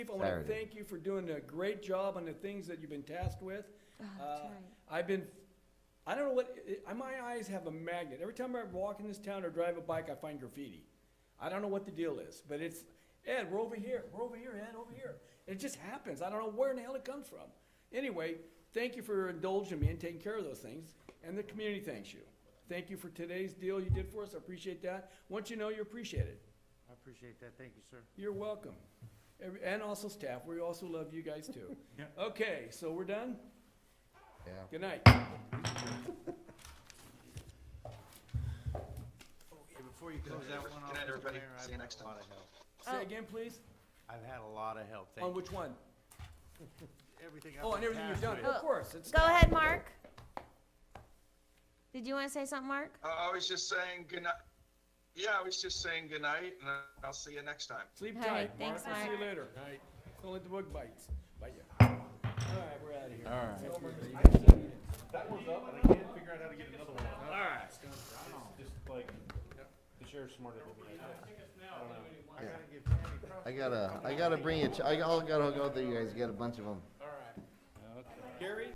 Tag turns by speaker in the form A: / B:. A: Chief, I want to
B: Saturday.
A: thank you for doing a great job on the things that you've been tasked with.
C: Oh,
A: Uh,
C: that's right.
A: I've been, I don't know what, it- I- my eyes have a magnet. Every time I walk in this town or drive a bike, I find graffiti. I don't know what the deal is, but it's, Ed, we're over here, we're over here, Ed, over here. It just happens. I don't know where in the hell it comes from. Anyway, thank you for indulging me and taking care of those things, and the community thanks you. Thank you for today's deal you did for us. I appreciate that. Once you know, you appreciate it.
D: I appreciate that. Thank you, sir.
A: You're welcome. Every- And also staff, we also love you guys too.
D: Yeah.
A: Okay, so we're done?
B: Yeah.
A: Good night.
E: Oh,
D: Hey, before you close that one off,
F: Good night,
D: Mr.
F: everybody.
D: Mayor, I've
F: See you
D: had
F: next
D: a
F: time.
D: lot of help.
C: Oh.
A: Say again, please?
D: I've had a lot of help.
A: On
D: Thank you.
A: which one?
D: Everything I've
A: Oh, and
D: been
A: everything you've
D: tasked
A: done,
D: with.
A: of course. it's
C: Go
A: staff.
C: ahead, Mark. Did you want to say something, Mark?
F: Uh, I was just saying good night. Yeah, I was just saying good night, and I- I'll see you next time.
A: Sleep
C: All
A: tight,
C: right,
A: Mark.
C: thanks,
A: We'll see you
C: Mark.
A: later. Don't let the bug bites, bite you. All right, we're out of here. All right.
E: That one's up, and I can't figure out how to get another one. All right. Just like, the sheriff's smarter than me.
B: I gotta, I gotta bring it, I gotta go, there, you guys, get a bunch of them.
A: Gary?